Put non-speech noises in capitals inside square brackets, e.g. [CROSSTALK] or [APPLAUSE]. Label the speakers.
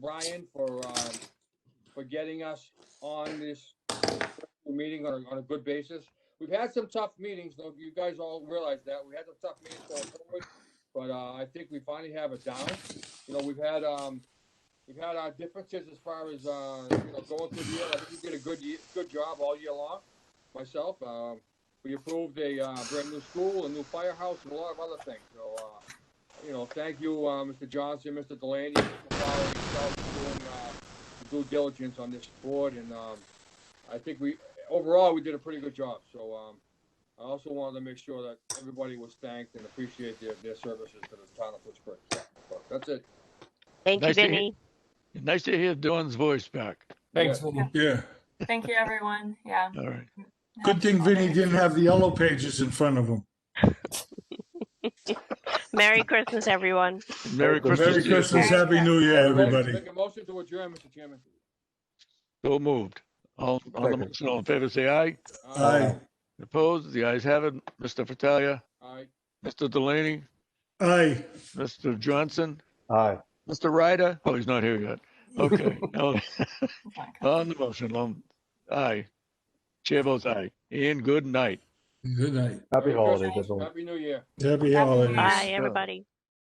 Speaker 1: Brian for, um, for getting us on this meeting on, a- on a good basis. We've had some tough meetings, though, you guys all realize that, we had some tough meetings going forward, but, uh, I think we finally have it down. You know, we've had, um, we've had our differences as far as, uh, you know, going through the year, I think you did a good, ye- good job all year long, myself, um, we approved a, uh, brand new school, a new firehouse, and a lot of other things, so, uh, you know, thank you, uh, Mr. Johnson, Mr. Delaney, for following yourself and doing, uh, due diligence on this board, and, um, I think we, overall, we did a pretty good job, so, um, I also wanted to make sure that everybody was thanked and appreciate their, their services to the town of Pittsburgh. So, That's it.
Speaker 2: Thank you,
Speaker 3: Nice to hear-
Speaker 2: Vinny.
Speaker 3: Nice to hear Dawn's voice back.
Speaker 4: Thanks,
Speaker 1: Yeah.
Speaker 4: Vinny.
Speaker 5: Yeah.
Speaker 6: Thank you, everyone. Yeah.
Speaker 3: All right.
Speaker 5: Good thing Vinny didn't have the yellow pages in front of him.
Speaker 2: Merry Christmas, everyone.
Speaker 3: Merry Christmas.
Speaker 5: Merry
Speaker 3: to you.
Speaker 5: Christmas, Happy New Year, everybody.
Speaker 1: Make a motion to adjourn, Mr. Chairman.
Speaker 3: So moved. All, all the
Speaker 4: Second.
Speaker 3: motion, all in favor, say aye.
Speaker 5: Aye,
Speaker 3: Opposed? The ayes have it. Mr. Fattalia,
Speaker 1: All right.
Speaker 3: Mr. Delaney,
Speaker 5: aye.
Speaker 3: Mr. Johnson,
Speaker 4: Aye.
Speaker 3: Mr. Ryder. Oh, he's not here yet.
Speaker 5: [LAUGHS]
Speaker 3: Okay.
Speaker 5: Oh
Speaker 3: No.
Speaker 6: Okay.
Speaker 3: [LAUGHS] On the motion, um, aye. Chair votes aye. Ian, good night.
Speaker 5: Good night.
Speaker 4: Happy
Speaker 1: Merry
Speaker 4: holidays,
Speaker 1: Christmas.
Speaker 4: everyone.
Speaker 1: Happy New Year.
Speaker 6: Happy
Speaker 5: Happy holidays.
Speaker 2: Bye,
Speaker 6: Yes.
Speaker 2: everybody.